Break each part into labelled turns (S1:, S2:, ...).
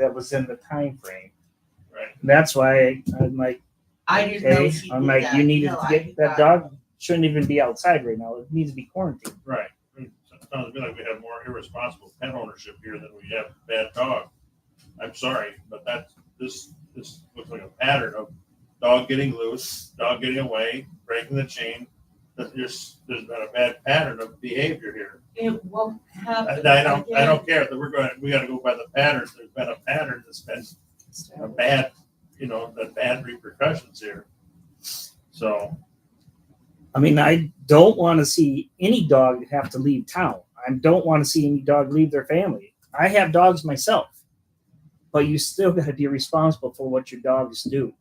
S1: that was in the time frame.
S2: Right.
S1: That's why I'm like,
S3: I didn't know
S1: okay,
S3: she did
S1: I'm like,
S3: that.
S1: you needed
S3: No,
S1: to
S3: I
S1: get
S3: did
S1: that
S3: not.
S1: dog shouldn't even be outside right now. It needs to be quarantined.
S2: Right. Sounds to me like we have more irresponsible pet ownership here than we have bad dog. I'm sorry, but that's, this, this looks like a pattern of dog getting loose, dog getting away, breaking the chain. That there's, there's been a bad pattern of behavior here.
S3: It won't happen
S2: And I don't, I
S3: again.
S2: don't care that we're going, we gotta go by the patterns. There's been a pattern that's been a bad, you know, the bad repercussions here. So,
S1: I mean, I don't want to see any dog have to leave town. I don't want to see any dog leave their family. I have dogs myself, but you still got to be responsible for what your dogs do.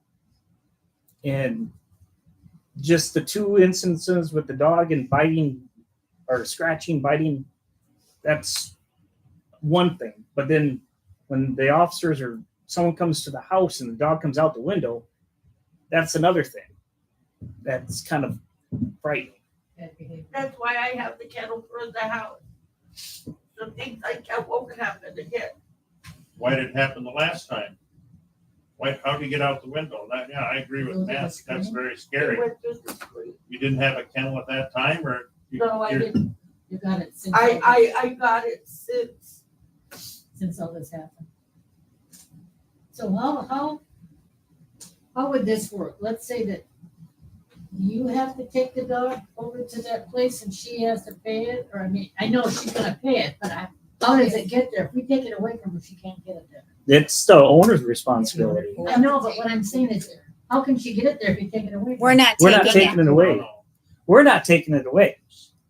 S1: And just the two instances with the dog and biting or scratching, biting, that's one thing. But then when the officers or someone comes to the house and the dog comes out the window, that's another thing. That's kind of frightening.
S3: That's why I have the kettle for the house. So things like that won't happen again.
S2: why did it happen the last time? Why, how do you get out the window? That, yeah, I agree with
S4: Those are the
S2: Matt. That's
S4: screen?
S2: very
S3: It
S2: scary.
S3: went through the screen.
S2: You didn't have a kennel at that time or? you-
S3: No, I
S2: you're-
S3: didn't.
S4: You got it since. all
S3: I,
S4: this-
S3: I, I got it since,
S4: Since all this happened. So how, how, how would this work? Let's say that you have to take the dog over to that place and she has to pay it, or I mean, I know she's gonna pay it, but I, how does it get there? If we take it away from her, she can't get it there.
S1: It's the owner's responsibility.
S4: I know, but what I'm saying is, how can she get it there if you take it away? from
S5: We're
S4: her?
S5: not
S1: We're not
S5: taking
S1: taking
S5: it.
S1: it away.
S2: No,
S1: We're not taking it away.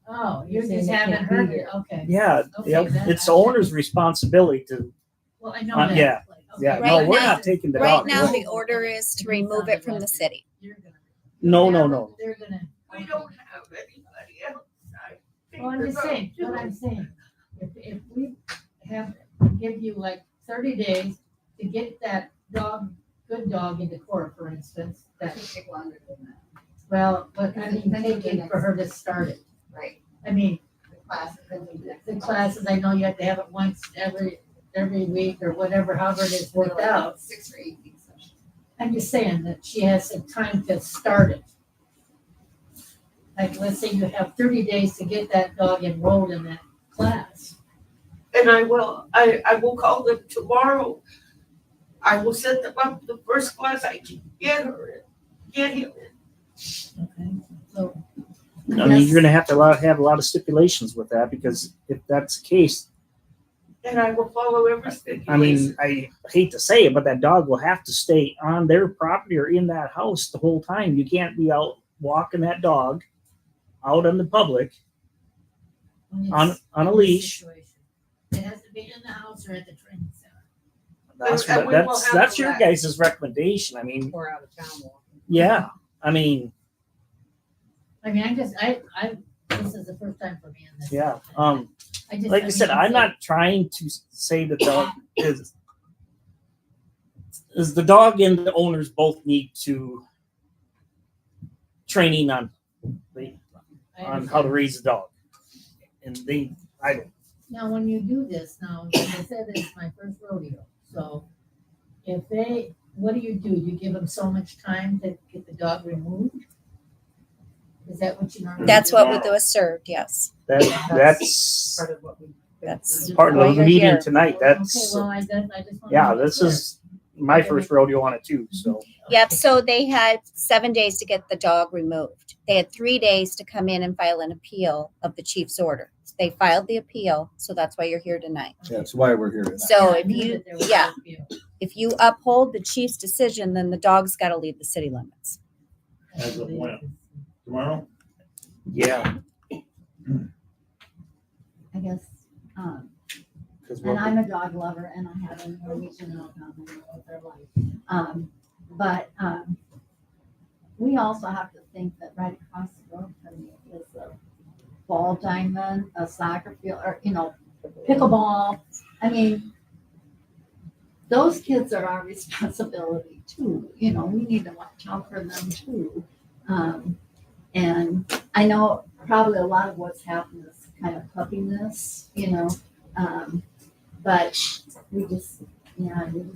S4: Oh,
S6: You're
S4: you're
S6: saying
S4: just
S6: it
S4: having
S6: can't
S4: her
S6: be
S4: here, okay.
S1: Yeah,
S4: Okay,
S1: yep.
S4: then
S1: it's
S4: I-
S1: the owner's responsibility to,
S4: Well, I know
S1: Uh,
S4: that.
S1: yeah,
S4: like,
S1: yeah,
S4: okay,
S1: no,
S5: Right
S1: we're
S5: now-
S1: not taking the
S5: Right
S1: dog.
S5: now,
S1: away.
S5: the order is to remove it from the city.
S4: you're gonna-
S1: No, no,
S4: Yeah,
S1: no.
S4: They're gonna.
S3: we don't have anybody outside.
S4: Well, I'm just saying,
S3: Think
S4: what
S3: about
S4: I'm
S3: it.
S4: saying, if, if we have, give you like thirty days to get that dog, good dog into court, for instance, that,
S6: take longer than that,
S4: well, but I mean,
S6: Then you
S4: take it
S6: get
S4: for her to start it.
S6: right?
S4: I mean,
S6: The classes and the.
S4: the classes, I know you have to have it once every, every week or whatever, however it is worked out.
S6: Six or eight weeks. sessions.
S4: I'm just saying that she has some time to start it. Like, let's say you have thirty days to get that dog enrolled in that class.
S3: And I will, I, I will call them tomorrow. I will set them up the first class I can get her in, get him in.
S4: Okay. So
S1: I mean,
S4: Yes.
S1: you're gonna have to allow, have a lot of stipulations with that because if that's the case,
S3: And I will follow every stipulation.
S1: I mean, I hate to say it, but that dog will have to stay on their property or in that house the whole time. You can't be out walking that dog out in the public
S4: when it's-
S1: on, on a leash.
S4: situation. It has to be in the house or at the training center.
S1: That's,
S3: And we will
S1: that's,
S3: have
S1: that's
S3: the
S1: your
S3: right.
S1: guys' recommendation. I mean,
S6: Or out of town walking.
S1: yeah, I mean,
S4: I mean, I just, I, I, this is the first time for me in this.
S1: yeah, um.
S4: I just.
S1: like I said,
S4: mean,
S1: I'm not trying to s- say the dog is is the dog and the owners both need to training on
S4: I
S1: on how to
S4: understand.
S1: raise a dog, and they I don't.
S4: Now, when you do this, now, like I said, it's my first rodeo, so if they, what do you do? You give them so much time to get the dog removed? Is that what you
S1: Mm-hmm.
S4: normally?
S5: That's
S4: do?
S5: what would do is served, yes.
S1: That that's
S6: Part of what we.
S5: That's
S1: part
S5: why
S1: of the
S5: you're
S1: meeting
S5: here.
S1: tonight.
S4: Okay,
S1: That's
S4: well, I just, I just. wanna
S1: yeah.
S4: make
S1: This
S4: sure.
S1: is my first rodeo on it too. So
S5: Yep, so they had seven days to get the dog removed. They had three days to come in and file an appeal of the chief's order. They filed the appeal, so that's why you're here tonight.
S7: That's why we're here tonight.
S5: So
S4: Yeah, I
S5: if
S4: knew
S5: you,
S4: that there was
S5: yeah,
S4: a few.
S5: if you uphold the chief's decision, then the dog's gotta leave the city limits.
S2: As of when? Tomorrow?
S1: yeah,
S8: I guess, um,
S1: because
S8: and I'm a dog lover and I have a Norwegian dog on my own with their life. Um, but, um, we also have to think that right across the road from you is a ball diamond, a soccer field, or, you know, pickleball. I mean, those kids are our responsibility too, you know, we need to watch out for them too. Um, and I know probably a lot of what's happened is kind of puppiness, you know, um, but we just
S4: Yeah, you just